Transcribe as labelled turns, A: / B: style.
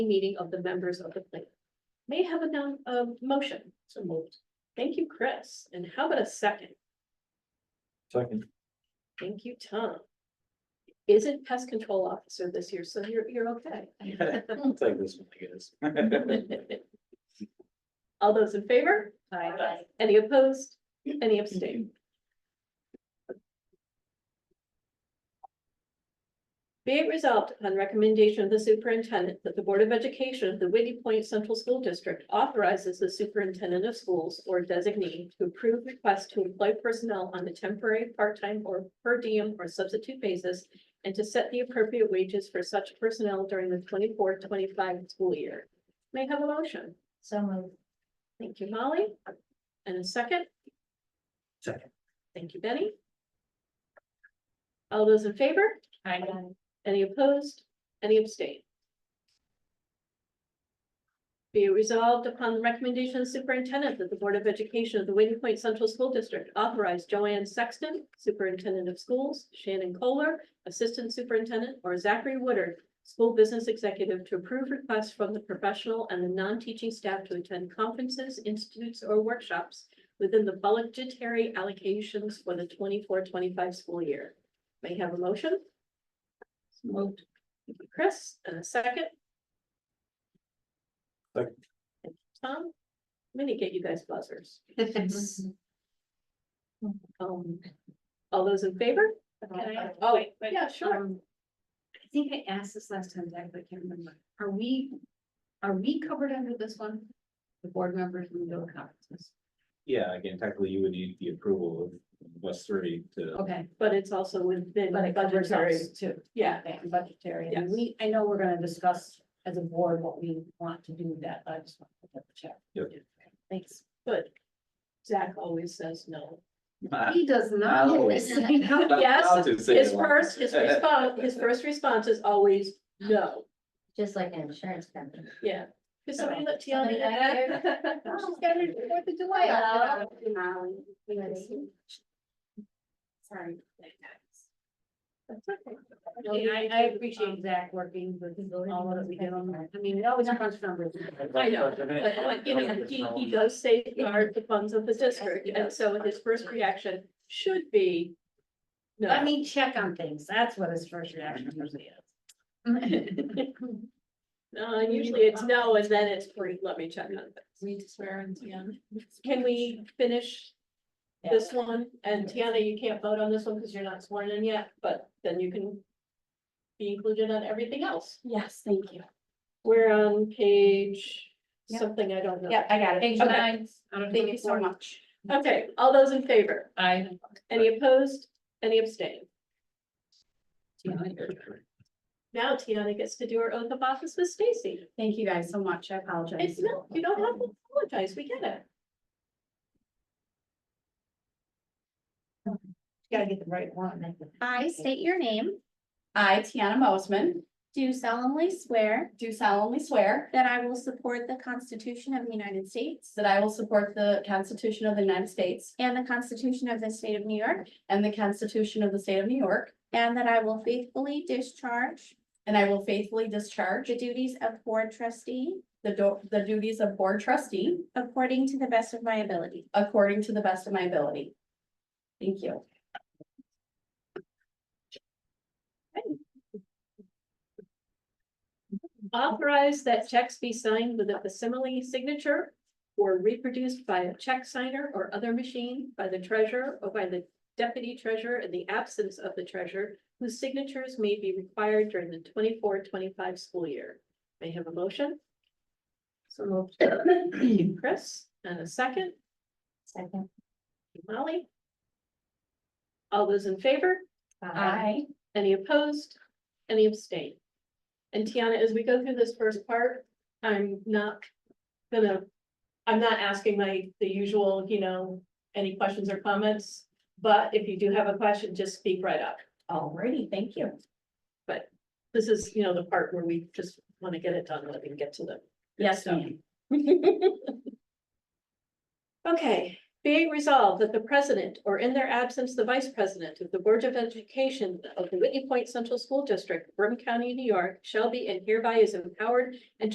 A: meeting of the members of the plan. May I have a down, a motion. So moved. Thank you, Chris. And how about a second?
B: Second.
A: Thank you, Tom. Isn't pest control officer this year, so you're, you're okay.
B: I'll take this one, I guess.
A: All those in favor?
C: Aye.
A: Any opposed? Any abstain? Be it resolved upon recommendation of the superintendent that the Board of Education of the Whitney Point Central School District authorizes the superintendent of schools or designee to approve requests to employ personnel on a temporary, part-time, or per diem or substitute basis and to set the appropriate wages for such personnel during the 24-25 school year. May I have a motion?
C: So moved.
A: Thank you, Molly. And a second?
B: Second.
A: Thank you, Benny. All those in favor?
C: Aye.
A: Any opposed? Any abstain? Be it resolved upon the recommendation of the superintendent that the Board of Education of the Waiting Point Central School District authorize Joanne Sexton, Superintendent of Schools, Shannon Kohler, Assistant Superintendent, or Zachary Woodard, School Business Executive, to approve requests from the professional and the non-teaching staff to attend conferences, institutes, or workshops within the budgetary allocations for the 24-25 school year. May I have a motion? Moved. Thank you, Chris, and a second? Thank
B: Second.
A: you, Tom, I'm gonna get you guys buzzers. Um, all those in favor?
C: Can
D: Uh,
C: I-
A: Oh, wait, yeah, sure.
D: Um, I think I asked this last time, Zach, but I can't remember. Are we, are we covered under this one? The board members and the conferences?
B: Yeah, again, technically you would need the approval of West Surrey to,
D: Okay.
A: But it's also within
D: But it covers
A: budgetary,
D: us too.
A: yeah,
D: Okay, and budgetary. And
A: Yes.
D: we, I know we're gonna discuss as a board what we want to do with that. but I just want to double check.
B: Yep.
D: Thanks.
A: but Zach always says no.
D: He does not.
B: Uh, No.
D: Yes.
A: Yes,
B: To say
A: his
B: it like-
A: first, his response, his first response is always no,
C: Just like an insurance company.
A: yeah. Cause somebody let you
C: Somebody out
D: She's got her Fourth of July.
C: Hello.
D: Sorry.
A: Okay,
D: I, I appreciate Zach working with all of us. I mean, it always comes from.
A: I know, but like, you know, he, he does safeguard the funds of the district, and so his first reaction should be.
D: Let
A: No,
D: me check on things. That's what his first reaction usually is.
A: no, Uh, and usually it's no, and then it's free, let me check on this.
D: Need to swear in Tiana.
A: Can we finish this one? And Tiana, you can't vote on this one because you're not sworn in yet, but then you can. Be included on everything else.
D: Yes, thank you.
A: We're on page
D: Yep.
A: something, I don't know.
D: I got
A: Page
D: nine. Thank you so much.
A: Okay, all those in favor?
D: I.
A: Any opposed? Any abstain? Now Tiana gets to do her oath of office with Stacy.
D: Thank you guys so much. I apologize.
A: It's no, you don't have to apologize, we get it.
D: Gotta get the right one.
E: I state your name,
F: I, Tiana Mosman,
E: do solemnly swear
F: do solemnly swear
E: that I will support the Constitution of the United States
F: that I will support the Constitution of the United States
E: and the Constitution of the State of New York,
F: and the Constitution of the State of New York,
E: and that I will faithfully discharge
F: and I will faithfully discharge
E: the duties of board trustee
F: the do- the duties of board trustee
E: according to the best of my ability.
F: according to the best of my ability. Thank you.
A: Authorize that checks be signed with a facsimile signature or reproduced by a check signer or other machine by the treasurer or by the deputy treasurer in the absence of the treasurer, whose signatures may be required during the 24-25 school year. May I have a motion?
D: So moved.
A: Thank you, Chris, and a second,
C: Second.
A: Molly. All those in favor?
C: I,
A: Any opposed? Any abstain? And Tiana, as we go through this first part, I'm not gonna, I'm not asking my, the usual, you know, any questions or comments. But if you do have a question, just speak right up.
D: Alrighty, thank you.
A: This is, you know, the part where we just wanna get it done, let me get to them.
D: Yes,
A: So-
D: ma'am.
A: Okay, being resolved that the president, or in their absence, the vice president of the Board of Education of the Whitney Point Central School District, Brim County, New York, shall be and hereby is empowered